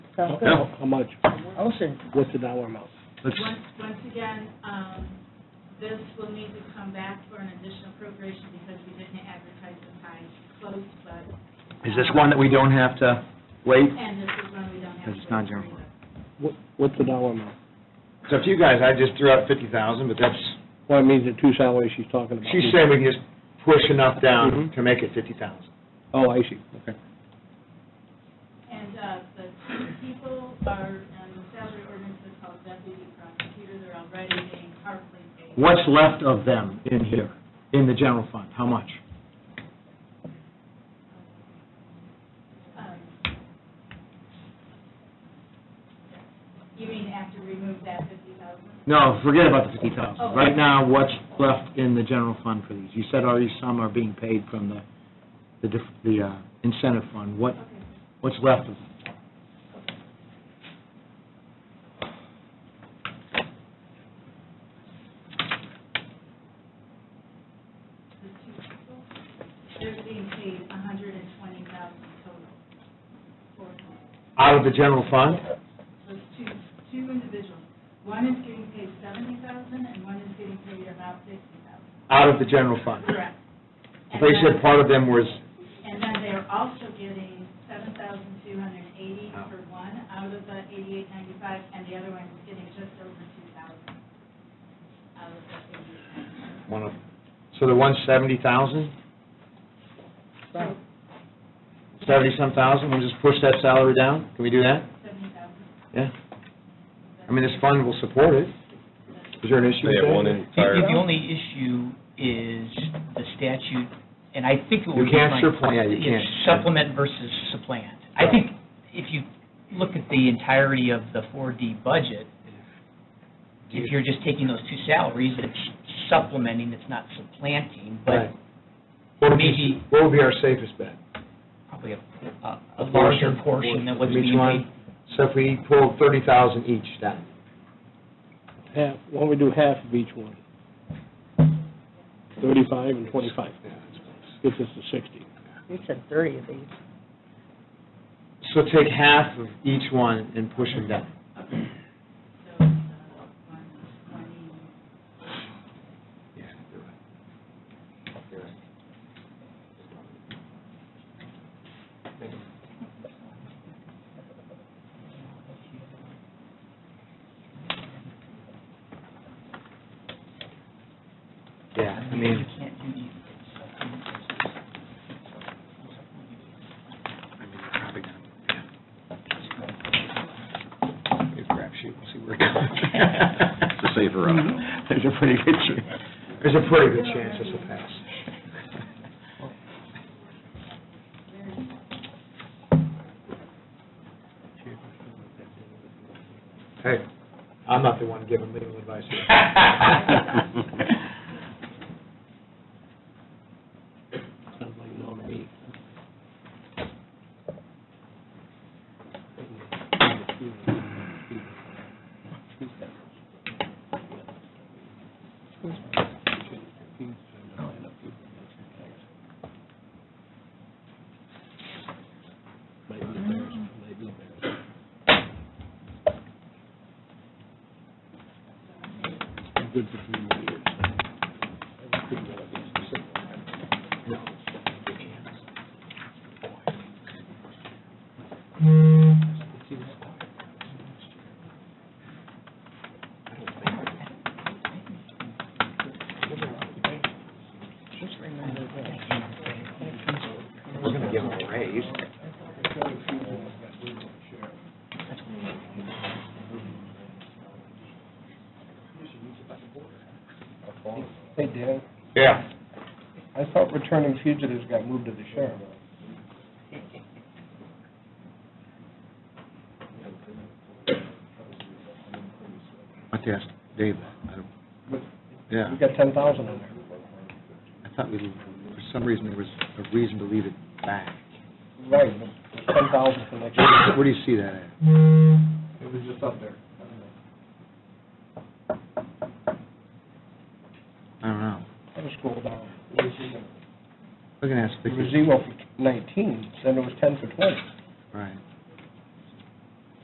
Sounds good. Yeah. How much? I'll see. What's the dollar amount? Let's, Once, once again, um, this will need to come back for an additional appropriation because we didn't advertise the time close, but. um, is this one that we don't have to wait? And this is one we don't have. Because it's to not approve general. of. What, what's the dollar amount? So if you guys, I just threw out fifty thousand, but that's, Well, I mean, the two salaries she's talking about. she's saying we can just push enough down Mhm. to make it fifty thousand. Oh, I see, okay. And, uh, the two people are, and the salary ordinance is called deputy prosecutor, they're already being partly paid. What's left of them in here, in the general fund? How much? Um, You mean after we remove that fifty thousand? No, forget about the fifty thousand. Oh. Right now, what's left in the general fund for these? You said already some are being paid from the, the dif- the uh, incentive fund. What, Okay. what's left of? the two people, they're being paid a hundred and twenty thousand total for Out of the general fund? those two, two individuals. One is getting paid seventy thousand and one is getting paid about fifty thousand. Out of the general fund. Correct. And They then- said part of them was, And then they're also getting seven thousand two hundred and eighty for one out of the eighty-eight ninety-five and the other one is getting just over two thousand out of the eighty-eight ninety-five. one of, so the one's seventy thousand, Right. seventy-some thousand, we'll just push that salary down? Can we do that? Seventy thousand. Yeah? I mean, this fund will support it. Is there an issue with They that? have one The- entire, The only issue is the statute, and I think it You would be can't like... surplant- yeah, you it's can't. Supplement versus supplant. I Right. think if you look at the entirety of the 4D budget, if you're just taking those two salaries, it's supplementing, it's not supplanting, Right. but What would be, maybe- what would be our safest bet? probably a a- a larger portion than what's From being each one? paid So if we pulled thirty thousand each down? Half, why don't we do half of each one? Thirty-five and twenty-five, Yeah, that's close. gets us to sixty. You said thirty of these. So take half of each one and push them down. So, uh, one twenty, Yeah, you're right. You're right. Yeah, I mean, it's a crapshoot, we'll see where it goes. it's a safer option. There's a pretty good, ch- there's a pretty good chance this will pass. Hey, I'm not the one giving legal advice here. Sounds like no to me. Good for three years. I couldn't get up against the system. Just remember that. We're gonna give them a raise. Hey, Dan, Yeah. I thought returning fugitives got moved to the sheriff. I have to ask Dave that. I don't- Yeah, We got ten thousand in there. I thought we, for some reason, there was a reason to leave it back. Right, ten thousand for next year. Where do you see that at? It was just up there. I don't know. Let me scroll down. It was zero. We're gonna ask It was Vicki. zero for nineteen, then it was ten for twenty. Right.